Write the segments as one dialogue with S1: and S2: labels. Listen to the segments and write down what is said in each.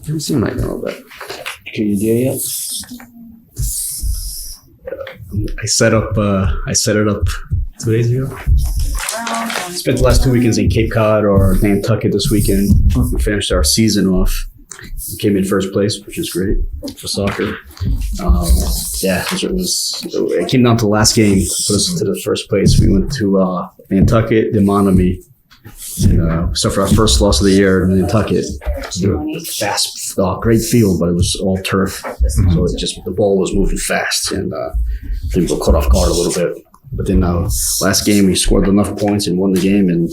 S1: Let me see mine a little bit.
S2: Can you do it
S1: I set up. Uh, I set it up two days ago. Spent the last two weekends in Cape Cod or Nantucket this weekend. We finished our season off. We came in first place, which is great for soccer. Um, yeah, it was. It came down to the last game. Put us to the first place. We went to uh, Nantucket, the Monomy. And, uh, suffered our first loss of the year in Nantucket. They were Fast, uh, great field, but it was all turf. So it just the ball was moving fast, and uh, they were caught off guard a little bit. But then uh, last game we scored enough points and won the game in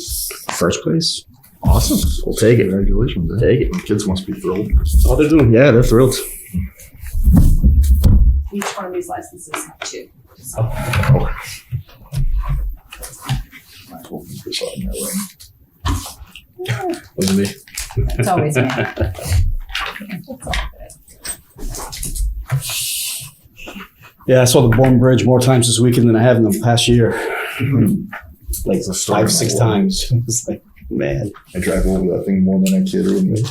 S1: first place.
S3: Awesome.
S1: We'll take it.
S3: Congratulations. man.
S1: Take it.
S3: Kids must be thrilled.
S1: Oh, they're doing. Yeah, they're thrilled.
S4: Each one of these licenses have two.
S1: Wasn't me.
S4: It's always me.
S1: Yeah, I saw the Bourne Bridge more times this weekend than I have in the past year. like
S3: Hmm. story
S1: five,
S3: of my
S1: six
S3: life.
S1: times. It's like, man.
S3: I drive over that thing more than I kid or me.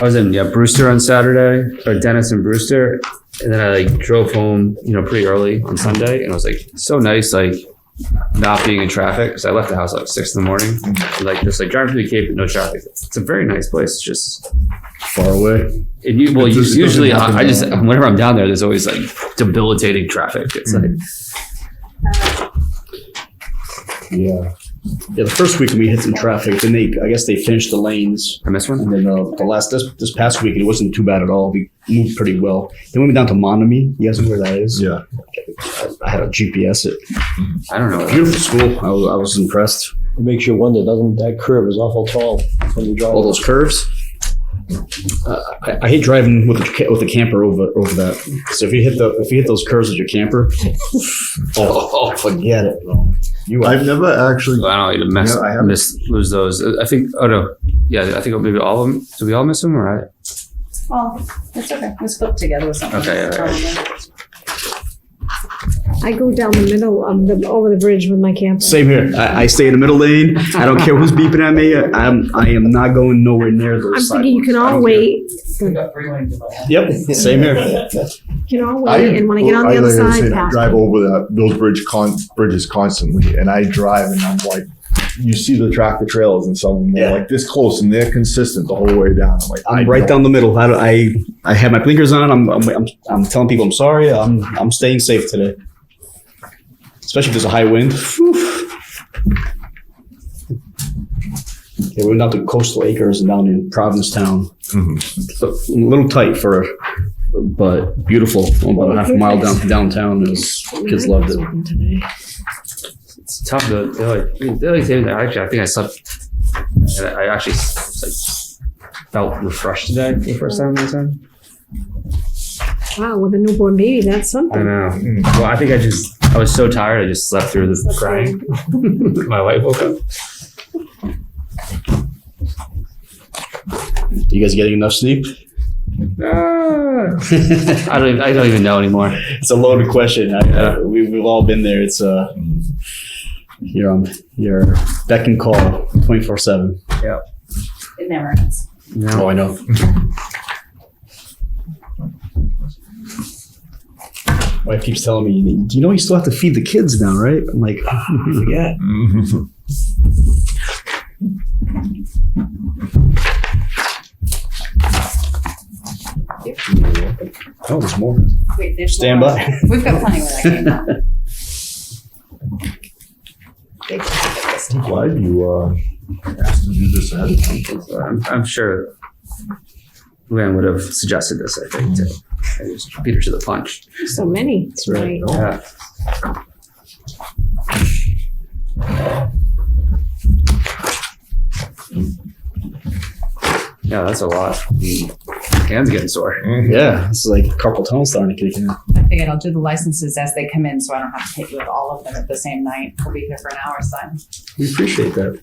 S5: I was in yeah Brewster on Saturday or Dennis and Brewster, and then I like drove home you know pretty early on Sunday, and it was like so nice like not being in traffic because I left the house at like six in the morning, and, like just like driving through the Cape with no traffic. It's a very nice place. It's just
S1: Far away.
S5: and you well
S3: It
S5: you,
S3: just- it doesn't
S5: usually
S3: happen
S5: I, I just
S3: there.
S5: whenever I'm down there, there's always like debilitating traffic. It's like
S1: Yeah. Yeah, the first weekend we hit some traffic. Then they, I guess they finished the lanes.
S5: I missed
S1: And
S5: one.
S1: then uh, the last this this past week, it wasn't too bad at all. We moved pretty well. Then we went down to Monomy. You guys know where that is?
S3: Yeah.
S1: I had a GPS. It
S5: I don't know.
S1: beautiful school. I was, I was impressed.
S6: It makes you wonder, doesn't that curve is awful tall when you drive?
S1: All those curves. Uh, I, I hate driving with a, ca- with a camper over over that. So if you hit the if you hit those curves with your camper, oh, oh, forget it. You are
S3: I've never actually.
S5: I don't know. You mess,
S3: Yeah, I haven't.
S5: miss, lose those. I think. Oh no. Yeah, I think maybe all of them. Did we all miss them? Or I,
S4: Well, it's okay. We spoke together with something.
S5: Okay, all
S7: I go down the middle of the over the bridge with my camper.
S1: same here. I, I stay in the middle lane. I don't care who's beeping at me. I'm I am not going nowhere near those.
S7: I'm thinking you can
S1: sidewalks. I
S7: all
S1: don't care.
S7: wait.
S1: Yep, same here.
S7: You can all wait, and when I get on the
S3: I-
S7: other
S3: like I
S7: side,
S3: said,
S7: pass.
S3: drive
S7: me.
S3: over that those bridge con- bridges constantly, and I drive, and I'm like, you see the tractor trailers, and some of them
S1: Yeah.
S3: are like this close, and they're consistent the whole way down. I'm like,
S1: I'm
S3: I
S1: right
S3: don't-
S1: down the middle. I, don't- I I have my blinkers on. I'm I'm, I'm I'm telling people I'm sorry. I'm I'm staying safe today. Especially if there's a high wind. Whew. Okay, we went down to Coastal Acres and down in Provincetown. So, a little tight for, but beautiful. About a half a mile down downtown. It was, kids loved it.
S7: Open today.
S5: it's tough though. They're like, I mean, they're like saying that actually, I think I slept. and I I actually like, felt refreshed today for the first time this time.
S7: Wow, with a newborn baby, that's
S5: I
S7: something.
S5: know. Well, I think I just I was so tired. I just slept through the crying. My wife woke up.
S1: You guys getting enough sleep?
S5: Ah.
S1: it's
S5: I don't. Even, I don't even know anymore.
S1: a loaded question. I, I, we, we've all been there. It's uh, you're on your beck and call twenty four seven. Oh,
S4: It never ends.
S5: No.
S1: I know. My wife keeps telling me, "Do you know you still have to feed the kids now, right?" I'm like, "Ah, I forget. Oh, there's more.
S4: Wait, there's
S1: Stand
S4: more.
S1: by.
S4: We've got plenty with that.
S3: Glad you uh, asked to do this ahead of time.
S5: So I'm, I'm sure. Luann would have suggested this. I think too. I just beat her to the punch.
S7: So many.
S1: right.
S7: Right.
S5: Yeah. Yeah, that's a lot. Hands getting sore.
S1: Yeah, it's like carpal tunnel starting to kick in.
S4: I figured I'll do the licenses as they come in, so I don't have to hit you with all of them at the same night. We'll be here for an hour, so.
S1: We appreciate that.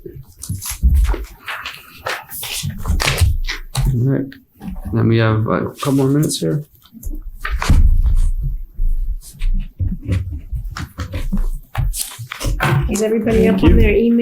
S5: All right. Then we have uh, a couple more minutes here.
S7: Is everybody up on their email?